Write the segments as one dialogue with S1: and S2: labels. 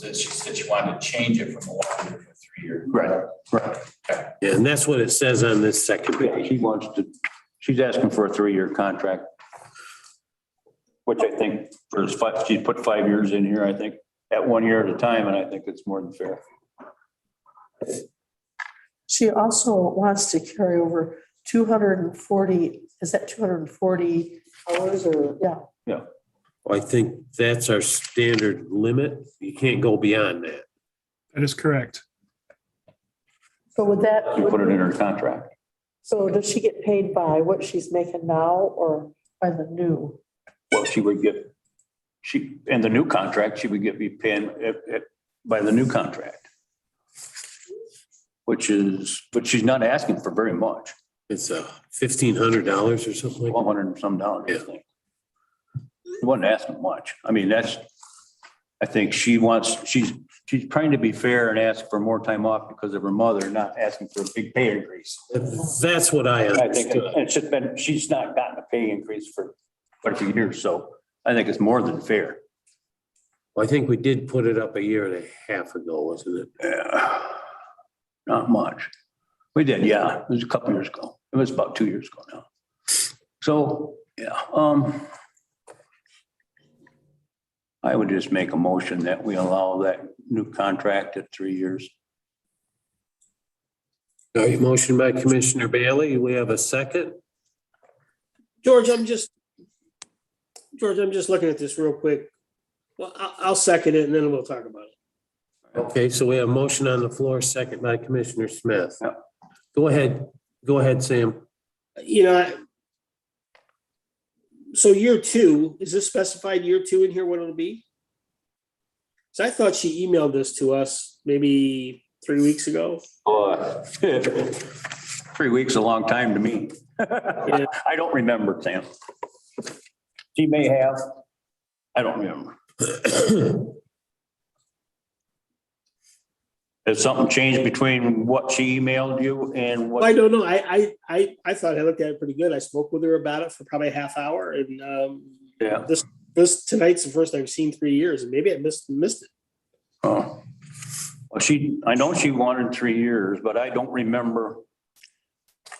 S1: that she said she wanted to change it from a one year to a three year.
S2: Right, right.
S3: Yeah, And that's what it says on this second
S2: Yeah,
S3: page.
S2: She wants to, she's asking for a three-year contract. Which I think for his five, she put five years in here, I think, at one year at a time, and I think it's more than fair.
S4: She also wants to carry over two hundred and forty, is that two hundred and forty hours or, yeah,
S3: I think that's our standard limit. You can't go beyond that.
S5: That is correct.
S4: so would that,
S2: She put it in her contract.
S4: so does she get paid by what she's making now or by the new?
S2: Well, she would get, she, in the new contract, she would get, be paying it- it by the new contract. Which is, but she's not asking for very much,
S3: It's a fifteen hundred dollars or something like that.
S2: one hundred and some dollars, I think. She wasn't asking much. I mean, that's, I think she wants, she's, she's trying to be fair and ask for more time off because of her mother, not asking for a big pay increase.
S3: That's what I
S2: I think
S3: understood.
S2: it's just been, she's not gotten a pay increase for quite a few years, so I think it's more than fair.
S3: I think we did put it up a year and a half ago, wasn't it?
S2: Yeah, Not much. We did, yeah. It was a couple years ago. It was about two years ago now. So, yeah, um. I would just make a motion that we allow that new contract at three years.
S3: All right, motion by Commissioner Bailey. We have a second.
S6: George, I'm just, George, I'm just looking at this real quick. Well, I'll, I'll second it and then we'll talk about it.
S3: Okay, so we have a motion on the floor, second by Commissioner Smith.
S2: Yep.
S3: Go ahead, go ahead, Sam.
S6: You know, I- so year two, is this specified year two in here, what it'll be? So I thought she emailed this to us maybe three weeks ago.
S2: Uh, Three weeks is a long time to me. I don't remember, Sam. She may have. I don't remember. Has something changed between what she emailed you and
S6: Well, I
S2: what?
S6: don't know. I, I, I, I thought I looked at it pretty good. I spoke with her about it for probably a half hour and, um,
S2: Yeah.
S6: this, tonight's the first I've seen three years and maybe I missed, missed it.
S2: Oh. Well, she, I know she wanted three years, but I don't remember.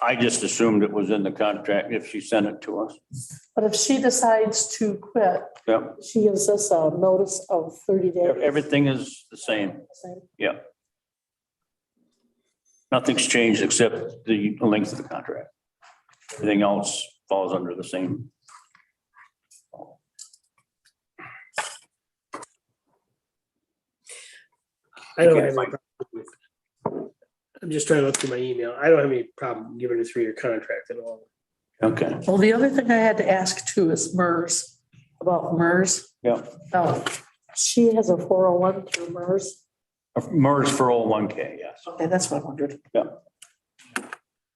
S2: I just assumed it was in the contract if she sent it to us.
S4: But if she decides to quit,
S2: Yep.
S4: she gives us a notice of thirty days.
S2: Everything is the same.
S4: Same.
S2: Yeah. Nothing's changed except the length of the contract. Everything else falls under the same.
S6: I don't
S2: Okay,
S6: have any
S2: fine.
S6: problem with I'm just trying to look through my email. I don't have any problem giving a three-year contract at all.
S2: Okay.
S4: Well, the other thing I had to ask too is MERS, about MERS.
S2: Yeah.
S4: Oh, she has a four oh one through MERS.
S2: MERS for all one K, yes.
S4: Okay, that's what I wondered.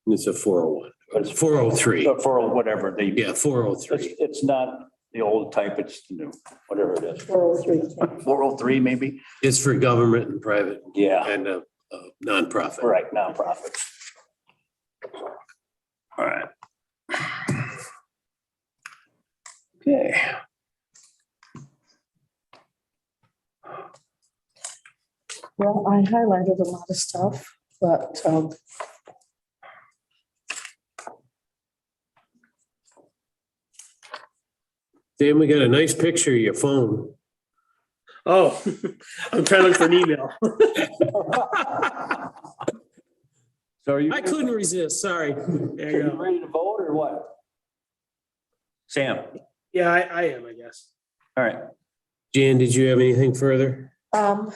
S3: It's a four oh one,
S2: It's-
S3: four oh three.
S2: But For whatever they,
S3: Yeah, four oh
S2: it's,
S3: three.
S2: it's not the old type, it's the new, whatever it is.
S4: Four oh three.
S2: Four oh three maybe?
S3: It's for government and private
S2: Yeah,
S3: and uh, uh, nonprofit.
S2: right, nonprofit. All right. Okay.
S4: Well, I highlighted a lot of stuff, but, um,
S3: Dan, we got a nice picture of your phone.
S6: Oh, I'm trying to look for an email.
S2: So are you?
S3: I couldn't resist, sorry.
S6: There
S2: Are
S6: you
S2: you
S6: go.
S2: ready to vote or what? Sam,
S6: Yeah, I, I am, I guess.
S2: all right.
S3: Jan, did you have anything further?
S4: Um,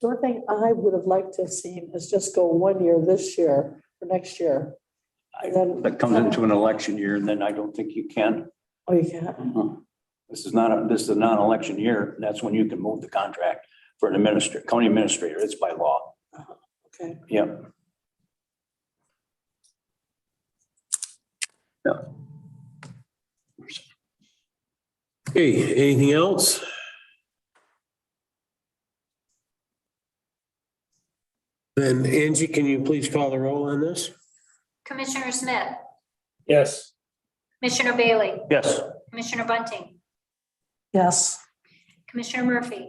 S4: The one thing I would have liked to have seen is just go one year this year or next year. And then-
S2: That comes into an election year and then I don't think you can.
S4: Oh, you can't.
S2: This is not, a this is a non-election year. and That's when you can move the contract for an administrator, county administrator. It's by law.
S4: Okay.
S2: Yep.
S3: Hey, anything else? Then Angie, can you please call the roll on this?
S7: Commissioner Smith,
S6: Yes.
S7: Commissioner Bailey,
S2: Yes.
S7: Commissioner Bunting,
S4: Yes.
S7: Commissioner Murphy,